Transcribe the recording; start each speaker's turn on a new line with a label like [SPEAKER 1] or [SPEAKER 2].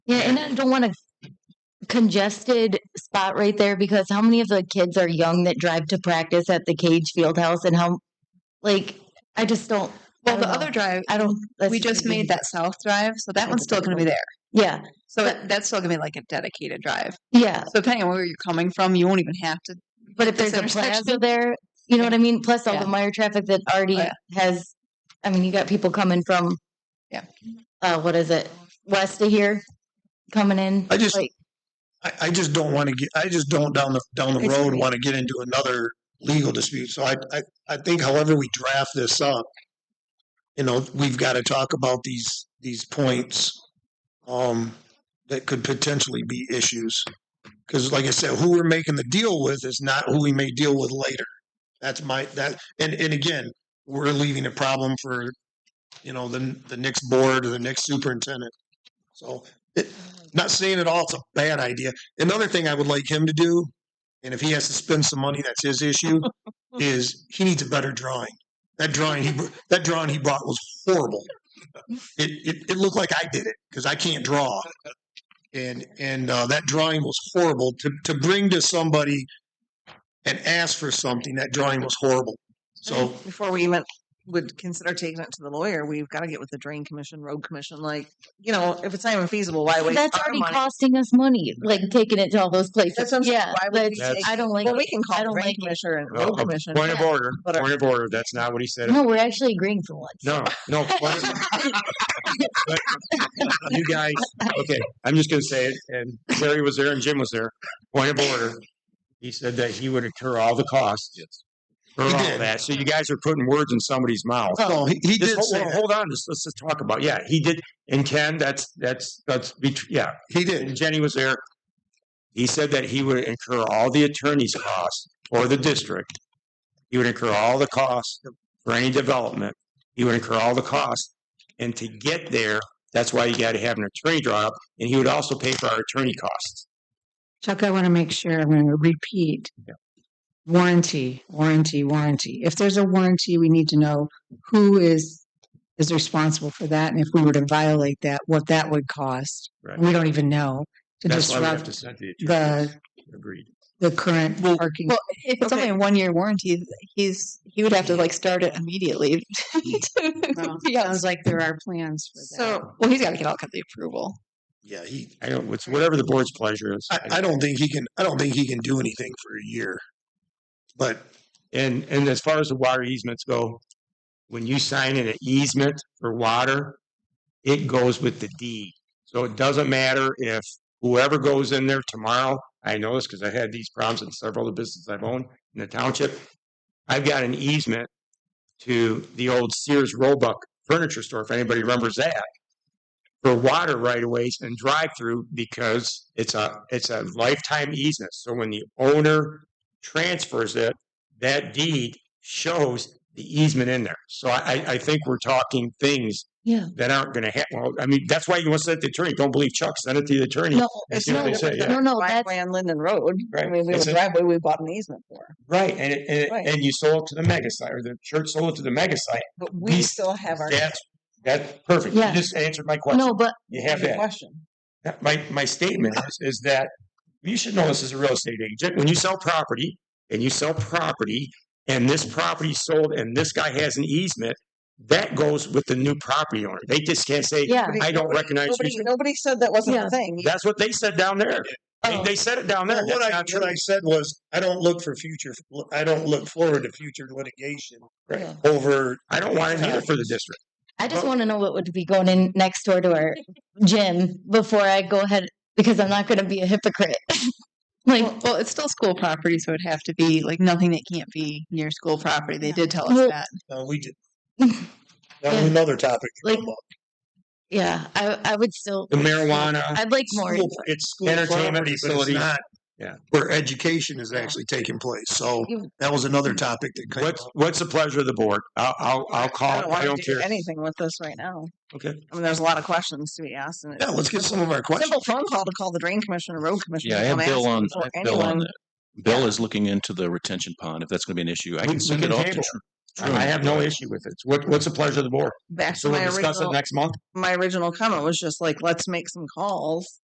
[SPEAKER 1] Yeah, and I don't want a congested spot right there because how many of the kids are young that drive to practice at the Cage Field House and how, like, I just don't. I
[SPEAKER 2] Well,
[SPEAKER 1] don't
[SPEAKER 2] the
[SPEAKER 1] know.
[SPEAKER 2] other drive,
[SPEAKER 1] I don't. that's
[SPEAKER 2] we just
[SPEAKER 1] crazy.
[SPEAKER 2] made that south drive, so that
[SPEAKER 1] That's
[SPEAKER 2] one's still going to be there.
[SPEAKER 1] Yeah,
[SPEAKER 2] So
[SPEAKER 1] But-
[SPEAKER 2] it- that's still going to be like a dedicated drive.
[SPEAKER 1] yeah.
[SPEAKER 2] So depending on where you're coming from, you won't even have to.
[SPEAKER 1] But if
[SPEAKER 2] This
[SPEAKER 1] there's a plaza
[SPEAKER 2] intersection.
[SPEAKER 1] there, you know what I mean. Plus all
[SPEAKER 2] Yeah.
[SPEAKER 1] the Meyer traffic that already
[SPEAKER 2] Oh, yeah.
[SPEAKER 1] has. I mean, you got people coming from.
[SPEAKER 2] Yeah.
[SPEAKER 1] Uh, what is it? West of here, coming in.
[SPEAKER 3] I just-
[SPEAKER 1] like,
[SPEAKER 3] I, I just don't want to get, I just don't down the, down the
[SPEAKER 2] It's-
[SPEAKER 3] road want to get into another legal dispute. So I, I, I think however we draft this up, you know, we've got to talk about these, these points, um, that could potentially be issues. Cause like I said, who we're making the deal with is not who we may deal with later. That's my, that, and, and again, we're leaving a problem for, you know, the, the next board or the next superintendent. So it, not saying at all it's a bad idea. Another thing I would like him to do, and if he has to spend some money, that's his issue, is he needs a better drawing. That drawing he br- that drawing he brought was horrible. It it, it looked like I did it because I can't draw, and and uh, that drawing was horrible. To to bring to somebody and ask for something, that drawing was horrible. So
[SPEAKER 2] before we even would consider taking it to the lawyer, we've got to get with the drain commission, road commission. Like, you know, if it's not even feasible, why waste
[SPEAKER 1] that's
[SPEAKER 2] our
[SPEAKER 1] already
[SPEAKER 2] money?
[SPEAKER 1] costing us money. Like taking it to all those places.
[SPEAKER 2] That's what I'm saying.
[SPEAKER 1] yeah,
[SPEAKER 2] Why would we
[SPEAKER 1] that's-
[SPEAKER 2] take-
[SPEAKER 1] I don't like.
[SPEAKER 2] well, we can
[SPEAKER 1] I
[SPEAKER 2] call the
[SPEAKER 1] don't
[SPEAKER 2] drain
[SPEAKER 1] like it.
[SPEAKER 2] commissioner and
[SPEAKER 4] No,
[SPEAKER 2] road
[SPEAKER 4] a
[SPEAKER 2] commission.
[SPEAKER 4] Point of
[SPEAKER 1] Yeah.
[SPEAKER 4] order,
[SPEAKER 2] But-
[SPEAKER 4] point of order. That's not what he said.
[SPEAKER 1] No, we're actually agreeing for once.
[SPEAKER 4] No, no. point of- but You guys, okay, I'm just gonna say it, and Larry was there and Jim was there. Point of order. He said that he would incur all the costs. For
[SPEAKER 3] He
[SPEAKER 4] all
[SPEAKER 3] did.
[SPEAKER 4] that. So you guys are putting words in somebody's mouth.
[SPEAKER 3] no, he, he
[SPEAKER 4] Just
[SPEAKER 3] did
[SPEAKER 4] hold,
[SPEAKER 3] say
[SPEAKER 4] well,
[SPEAKER 3] that.
[SPEAKER 4] hold on, just, let's just talk about, yeah, he did, and Ken, that's, that's, that's, bet- yeah,
[SPEAKER 3] he
[SPEAKER 4] and
[SPEAKER 3] did.
[SPEAKER 4] Jenny was there. He said that he would incur all the attorney's costs or the district. He would incur all the costs for any development. He would incur all the costs. And to get there, that's why you got to have an attorney draw up, and he would also pay for our attorney costs.
[SPEAKER 5] Chuck, I want to make sure I'm going to repeat.
[SPEAKER 4] Yeah.
[SPEAKER 5] Warranty, warranty, warranty. If there's a warranty, we need to know who is is responsible for that, and if we were to violate that, what that would cost.
[SPEAKER 4] Right.
[SPEAKER 5] We don't even know to
[SPEAKER 4] That's why we have to
[SPEAKER 5] disrupt
[SPEAKER 4] send the attorney.
[SPEAKER 5] the
[SPEAKER 4] Agreed.
[SPEAKER 5] the current
[SPEAKER 2] Well-
[SPEAKER 5] parking.
[SPEAKER 2] well, If it's only a one year warranty, he's he would have to like start it immediately.
[SPEAKER 5] Well,
[SPEAKER 2] yeah.
[SPEAKER 5] Sounds like there are plans for that.
[SPEAKER 2] So, well, he's got to get all kinds of approval.
[SPEAKER 3] Yeah, he.
[SPEAKER 4] I don't, it's whatever the board's pleasure is.
[SPEAKER 3] I, I don't think he can. I don't think he can do anything for a year. But
[SPEAKER 4] And, and as far as the water easements go, when you sign in an easement for water, it goes with the deed. So it doesn't matter if whoever goes in there tomorrow, I know this because I had these problems in several of the businesses I've owned in the township. I've got an easement to the old Sears Roebuck furniture store, if anybody remembers that, for water right of ways and drive through because it's a, it's a lifetime easement. So when the owner transfers it, that deed shows the easement in there. So I, I- I think we're talking things
[SPEAKER 1] Yeah.
[SPEAKER 4] that aren't going to happen. Well, I mean, that's why you want to send it to the attorney. Don't believe Chuck. Send it to the attorney.
[SPEAKER 1] No,
[SPEAKER 4] and
[SPEAKER 1] it's
[SPEAKER 4] see what
[SPEAKER 1] no,
[SPEAKER 4] they say, yeah.
[SPEAKER 1] no, no. That's
[SPEAKER 2] Driveway on Linden Road. I
[SPEAKER 4] Right.
[SPEAKER 2] mean, we have
[SPEAKER 4] It's
[SPEAKER 2] a
[SPEAKER 4] a-
[SPEAKER 2] driveway we bought an easement for,
[SPEAKER 4] Right. And, it, and, it-
[SPEAKER 2] Right.
[SPEAKER 4] and you sold it to the mega site or the church sold it to the mega site.
[SPEAKER 2] but we
[SPEAKER 4] We-
[SPEAKER 2] still have our
[SPEAKER 4] That's, that's perfect.
[SPEAKER 1] Yeah.
[SPEAKER 4] You just answered my question.
[SPEAKER 1] no, but
[SPEAKER 4] You have that.
[SPEAKER 2] question.
[SPEAKER 4] that- my, my statement is, is that you should know this as a real estate agent. When you sell property and you sell property and this property sold and this guy has an easement, that goes with the new property owner. They just can't say,
[SPEAKER 1] yeah.
[SPEAKER 4] I don't recognize your
[SPEAKER 2] Nobody, nobody said that wasn't
[SPEAKER 1] Yeah.
[SPEAKER 2] a thing.
[SPEAKER 4] That's what they said down there. They,
[SPEAKER 2] Oh.
[SPEAKER 4] they said it down there.
[SPEAKER 3] Well,
[SPEAKER 4] That's
[SPEAKER 3] what I,
[SPEAKER 4] not true.
[SPEAKER 3] what I said was, I don't look for future, I don't look forward to future litigation
[SPEAKER 1] Yeah.
[SPEAKER 3] over,
[SPEAKER 4] I don't want it either for the district.
[SPEAKER 1] I just want to know what would be going in next door to our gym before I go ahead because I'm not going to be a hypocrite. like,
[SPEAKER 2] Well, well, it's still school property, so it'd have to be like nothing that can't be near school property. They did tell us
[SPEAKER 1] Well-
[SPEAKER 2] that.
[SPEAKER 3] no, we did. That was
[SPEAKER 1] Yeah.
[SPEAKER 3] another topic.
[SPEAKER 1] Like, yeah, I I would still.
[SPEAKER 4] The marijuana,
[SPEAKER 1] I'd like more.
[SPEAKER 3] School- It's school
[SPEAKER 4] Entertainment
[SPEAKER 3] property, but it's
[SPEAKER 4] facilities.
[SPEAKER 3] not
[SPEAKER 4] Yeah.
[SPEAKER 3] where education is actually taking place. So
[SPEAKER 1] You-
[SPEAKER 3] that was another topic that came up.
[SPEAKER 4] what's, what's the pleasure of the board? I'll, I'll, I'll call,
[SPEAKER 2] I
[SPEAKER 4] it.
[SPEAKER 2] don't
[SPEAKER 4] I
[SPEAKER 2] want
[SPEAKER 4] don't
[SPEAKER 2] to do
[SPEAKER 4] care.
[SPEAKER 2] anything with this right now.
[SPEAKER 4] Okay.
[SPEAKER 2] I mean, there's a lot of questions to be asked. And it's
[SPEAKER 3] Yeah, let's get some of our
[SPEAKER 2] a
[SPEAKER 3] questions.
[SPEAKER 2] simple phone call to call the drain commissioner, road commissioner.
[SPEAKER 6] Yeah, I
[SPEAKER 2] and
[SPEAKER 6] have
[SPEAKER 2] come
[SPEAKER 6] Bill
[SPEAKER 2] ask
[SPEAKER 6] on,
[SPEAKER 2] before
[SPEAKER 6] I have Bill on
[SPEAKER 2] anyone-
[SPEAKER 6] that. Bill
[SPEAKER 2] Yeah.
[SPEAKER 6] is looking into the retention pond, if that's gonna be an issue. I
[SPEAKER 4] We-
[SPEAKER 6] can
[SPEAKER 4] we
[SPEAKER 6] send
[SPEAKER 4] can
[SPEAKER 6] it off to
[SPEAKER 4] table
[SPEAKER 6] Tr- Truman.
[SPEAKER 4] I have no issue with it. What, what's the pleasure of the board?
[SPEAKER 2] Back to
[SPEAKER 4] So we'll
[SPEAKER 2] my
[SPEAKER 4] discuss it
[SPEAKER 2] original,
[SPEAKER 4] next month?
[SPEAKER 2] my original comment was just like, let's make some calls